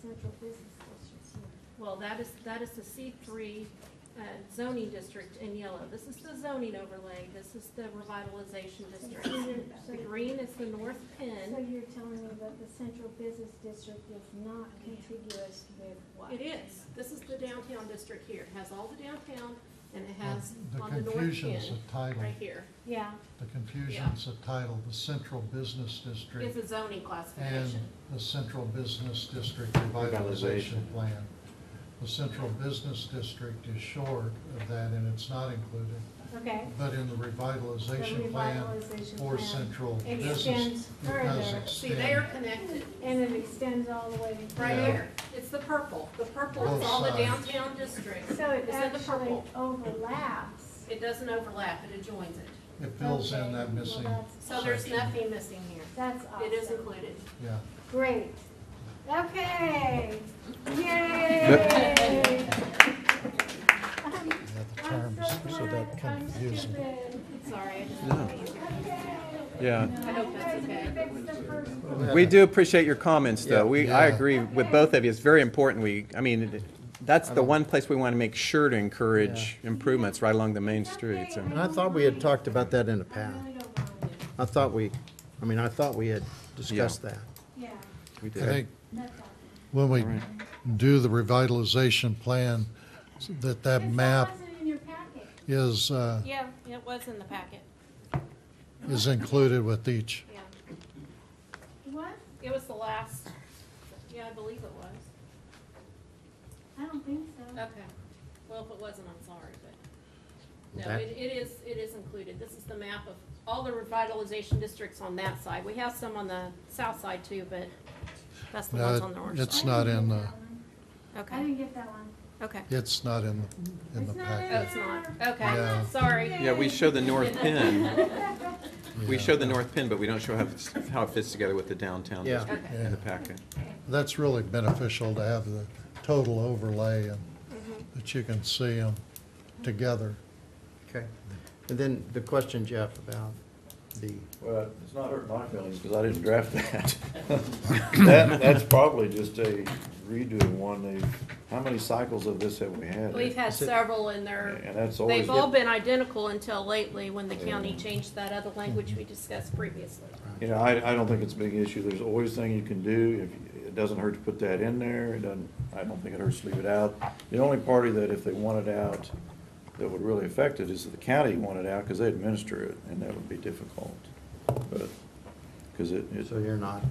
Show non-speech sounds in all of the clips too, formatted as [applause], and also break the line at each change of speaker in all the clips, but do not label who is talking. central business districts here.
Well, that is, that is the C three uh, zoning district in yellow. This is the zoning overlay. This is the revitalization district.
So you're- so
The
you're-
green is the north
So
pin.
you're telling me that the central business district is not contiguous with what?
It is. This is the downtown district here. It has all the downtown and it has
The
on the north pin,
confusion's the title,
right here.
Yeah,
the confusion's the title, the central business
It's
district
a zoning
and
classification.
the central business district revitalization
Revitalization.
plan. The central business district is short of that and it's not included,
okay.
but in the
The
revitalization plan
revitalization
for
plan
central business,
Extends
it does
further,
See, they are
extend.
connected
and it extends all the way.
right
Yeah.
here. It's the purple. The purple is
Both
all the
sides.
downtown district.
So it
It's in the
actually
purple.
overlaps.
It doesn't overlap, it adjoins it.
It fills
Okay,
in that
well,
missing,
that's-
So there's
Section.
nothing missing here.
That's
It is
awesome.
included.
yeah.
Great.
[laughs]
Okay. Yay. I'm-
Yeah, the
I'm
terms,
so
so that
glad I'm
confused me.
stupid.
Sorry.
Okay.
Yeah.
I hope that's okay.
We do appreciate your comments,
Yeah.
though. We, I
Yeah.
agree with both of you. It's very important. We, I mean, it- that's the one place we want to make sure to encourage improvements right along the main streets. and-
And I thought we had talked about that in the past. I thought we, I mean, I thought we had discussed that.
Yeah,
We
I
did.
think
that's awesome.
when we
Alright.
do the revitalization plan, that that
This
map
wasn't in your packet.
is, uh,
Yeah, it was in the packet,
is included with each.
yeah.
What?
It was the last, yeah, I believe it was.
I don't think so.
Okay. Well, if it wasn't, I'm sorry, but, no,
That-
it, it is, it is included. This is the map of all the revitalization districts on that side. We have some on the south side too, but that's the ones on
No,
the orange
Uh, it's
side.
not in the,
I
Okay,
didn't get that one.
okay.
it's not in, the in the
It's not
Oh,
in
packet.
it's not, okay,
Yeah.
sorry.
Yeah, we show the north pin. We
Yeah.
show the north pin, but we don't show how, it's- how it fits together with the downtown
Yeah.
district
Okay.
in
Yeah.
the packet.
That's really beneficial to have the total overlay and
Mm-hmm.
that you can see them together.
Okay. And then the question, Jeff, about the,
Well, it's not hurt my feelings, because I didn't draft that. That, that's probably just a redo of one, they, how many cycles of this have we had?
We've had several in there.
And that's always,
They've all been identical until lately, when the county changed that other language we discussed previously.
you know, I, I don't think it's a big issue, there's always thing you can do, if, it doesn't hurt to put that in there, it doesn't, I don't think it hurts to leave it out. The only party that if they want it out, that would really affect it is if the county wanted out, because they administer it, and that would be difficult. But, because it, it.
so you're not,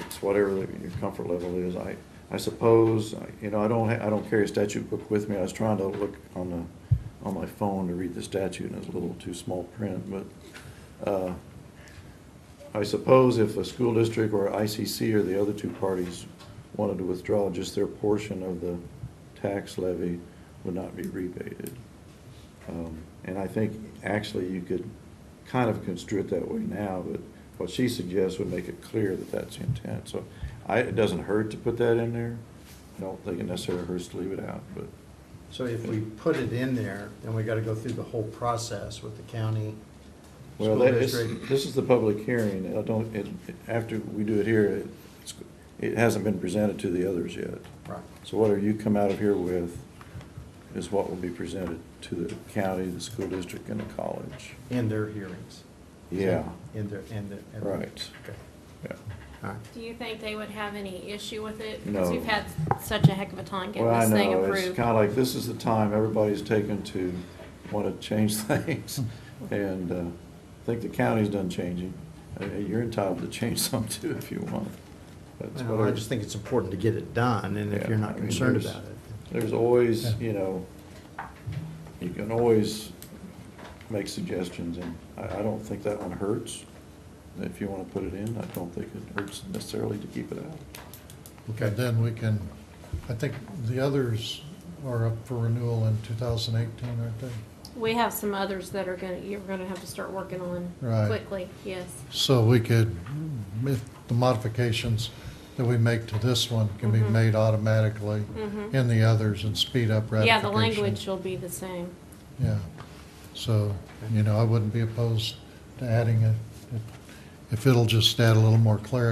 it's whatever that your comfort level is. I, I suppose, I- you know, I don't, ha- I don't carry a statute book with me. I was trying to look on the, on my phone to read the statute, and it's a little too small print, but, uh, I suppose if a school district or ICC or the other two parties wanted to withdraw, just their portion of the tax levy would not be rebated. Um, And I think actually you could kind of construe it that way now, but what she suggests would make it clear that that's the intent. So I, it doesn't hurt to put that in there. I don't think it necessarily hurts to leave it out, but
so if we put it in there, then we gotta go through the whole process with the county,
Well,
school
that is,
district.
this is the public hearing, I don't, it, after we do it here, it's, it hasn't been presented to the others yet.
Right.
So whatever you come out of here with is what will be presented to the county, the school district, and the college.
In their hearings.
Yeah,
In their, in their. in their-
Right.
Okay,
yeah.
all right.
Do you think they would have any issue with it?
No.
Because we've had such a heck of a time getting
Well, I
this thing
know, it's
approved.
kinda like, this is the time everybody's taken to wanna change [laughs] things, and, uh, I think the county's done changing. Uh, You're entitled to change [laughs] some too if you want. That's
Well, I
whatever-
just think it's important to get it done, and if
Yeah,
you're not
I mean,
concerned
there's-
about it.
There's always,
Yeah.
you know, you can always make suggestions, and I, I don't think that one hurts. If you want to put it in, I don't think it hurts necessarily to keep it out.
And then we can, I think the others are up for renewal in 2018, aren't they?
We have some others that are gonna, you're gonna have to start working on
Right.
quickly, yes.
So we could, if the modifications that we make to this one can be
Mhm.
made automatically
Mhm.
in the others and speed up ratification.
Yeah, the language will be the same.
Yeah, so, you know, I wouldn't be opposed to adding it, if- if it'll just add a little more clarity